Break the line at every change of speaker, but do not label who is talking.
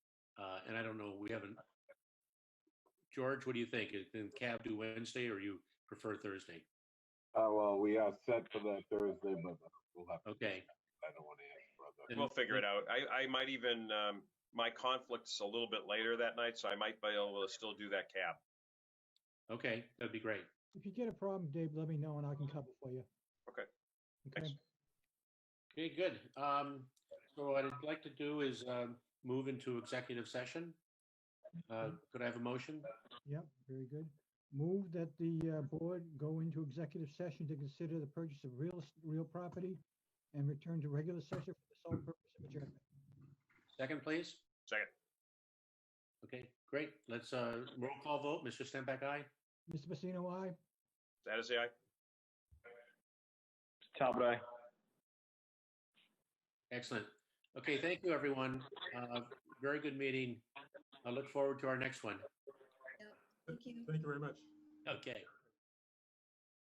Uh, and I don't know, we haven't. George, what do you think? Is- Can Cav do Wednesday or you prefer Thursday?
Oh, well, we are set for that Thursday, but we'll have, to-
Okay.
I don't want to ask brother.
then-
We'll figure it out. I, I might even, um, my conflict's a little bit later that night, so I might be able to still do that cab.
Okay, that'd be great.
If you get a problem, Dave, let me know and I can cover for you.
Okay.
Okay,
Thanks.
Okay, good. Um, so what I'd like to do is, um, move into executive session. Uh, could I have a motion?
yep, very good. Move that the uh, board go into executive session to consider the purchase of real, es- real property and return to regular session for the sole purpose of adjournment.
Second, please?
Second.
Okay, great. Let's, uh, roll call vote. Mr. Stenbeck, aye?
Mr. Pacino, aye?
That is the aye.
Talbot, aye.
Excellent. Okay, thank you, everyone. Uh, very good meeting. I look forward to our next one.
Thank you.
Thank you very much.
Okay.